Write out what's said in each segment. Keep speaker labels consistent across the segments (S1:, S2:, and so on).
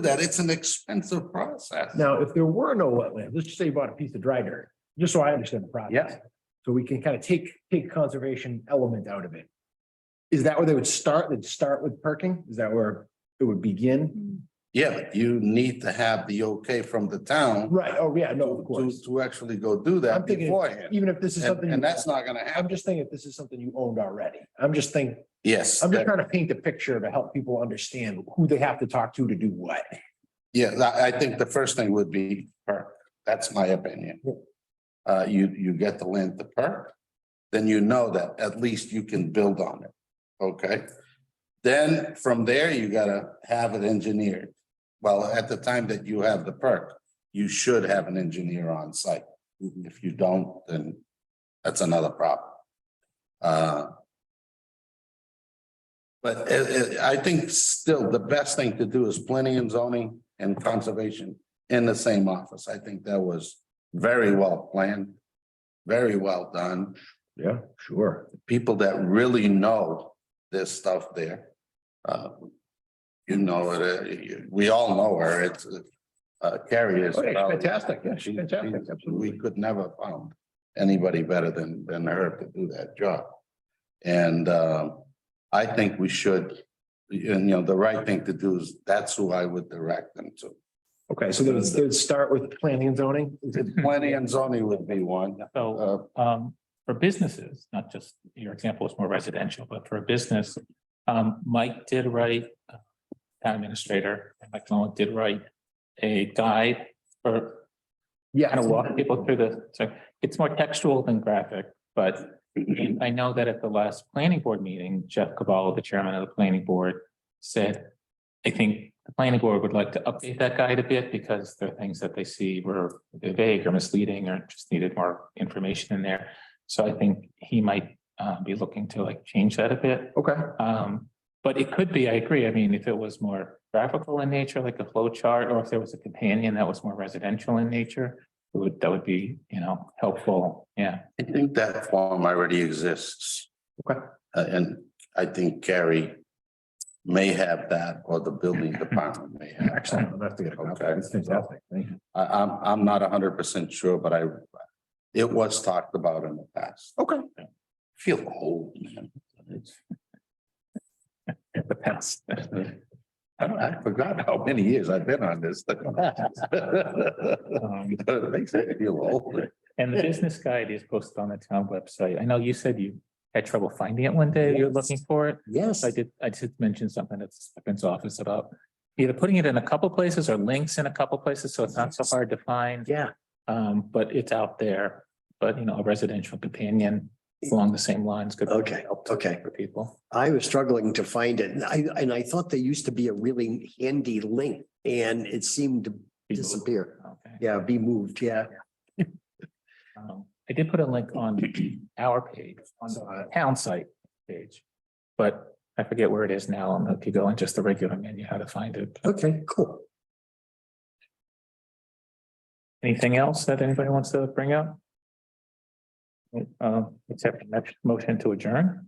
S1: that. It's an expensive process.
S2: Now, if there were no wetland, let's just say you bought a piece of dry dirt, just so I understand the process.
S1: Yeah.
S2: So we can kind of take, take conservation element out of it. Is that where they would start? They'd start with perking? Is that where it would begin?
S1: Yeah, but you need to have the okay from the town
S2: Right, oh, yeah, no, of
S1: to,
S2: course.
S1: to actually go do
S2: I'm
S1: that
S2: thinking,
S1: beforehand.
S2: even if this is something.
S1: And,
S2: you-
S1: and that's not gonna happen.
S2: I'm just thinking if this is something you owned already. I'm just thinking,
S1: Yes,
S2: I'm just
S1: that-
S2: trying to paint a picture to help people understand who they have to talk to to do what.
S1: yeah, I, I think the first thing would be perk. That's my opinion. Uh, you, you get the land to perk, then you know that at least you can build on it, okay? Then from there, you gotta have it engineered. Well, at the time that you have the perk, you should have an engineer on site. If you don't, then that's another problem. Uh, But it, it, I think still the best thing to do is planning and zoning and conservation in the same office. I think that was very well planned, very well done.
S2: Yeah, sure.
S1: People that really know this stuff there. Uh, You know, it, uh, you- we all know her. It's, uh, Carrie is.
S2: Oh, yeah, she's
S1: probably-
S2: fantastic. Yeah, she's
S1: she-
S2: fantastic.
S1: she's- We
S2: Absolutely.
S1: could never found anybody better than, than her to do that job. And, uh, I think we should, you know, the right thing to do is, that's who I would direct them to.
S2: Okay, so they'd, they'd start with planning and zoning?
S1: Planning and zoning would be one,
S3: So
S1: uh,
S3: um for businesses, not just your example is more residential, but for a business. Um Mike did write, uh, town administrator, Mike Nolan did write a guide for
S2: Yeah.
S3: kind of walking people through the, so it's more textual than graphic, but I know that at the last planning board meeting, Jeff Cavallo, the chairman of the planning board, said, I think the planning board would like to update that guide a bit because there are things that they see were vague or misleading or just needed more information in there. So I think he might uh, be looking to like change that a bit.
S2: Okay,
S3: Um, but it could be, I agree. I mean, if it was more graphical in nature, like a flow chart, or if there was a companion that was more residential in nature, it would, that would be, you know, helpful. Yeah.
S1: I think that form already exists.
S2: Okay.
S1: Uh, And I think Gary may have that, or the building department may have. that.
S2: excellent. I'm gonna have to get a copy.
S1: Okay.
S2: That's fantastic. Thank you.
S1: I, I'm, I'm not hundred percent sure, but I, it was talked about in the past.
S2: Okay.
S1: Feel old, man. It's-
S3: In the past.
S1: I don't- I forgot how many years I've been on this. thing.
S3: Um,
S1: It Makes me feel old.
S3: And the business guide is posted on the town website. I know you said you had trouble finding it one day. You're looking for it.
S1: Yes.
S3: I did, I did mention something at Spence office about either putting it in a couple places or links in a couple places, so it's not so hard to find.
S2: Yeah.
S3: Um, but it's out there, but you know, a residential companion along the same lines could.
S4: Okay, okay.
S3: For people.
S4: I was struggling to find it and I, and I thought there used to be a really handy link and it seemed to disappear.
S3: Okay.
S4: Yeah, be moved, yeah.
S3: Um, I did put a link on our page, on
S4: uh,
S3: the town site page. But I forget where it is now, and if you go in just the regular menu, how to find it.
S4: Okay, cool.
S3: Anything else that anybody wants to bring up? Um, except next motion to adjourn.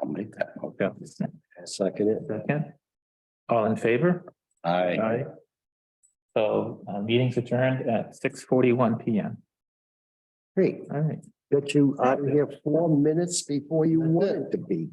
S1: I'll make that. motion.
S3: Yeah.
S4: Second it.
S3: Second. All in favor?
S1: I.
S3: So, uh, meeting's adjourned at six forty-one P M.
S4: Great.
S3: All right.
S4: Got you out of here four minutes before you wanted to be.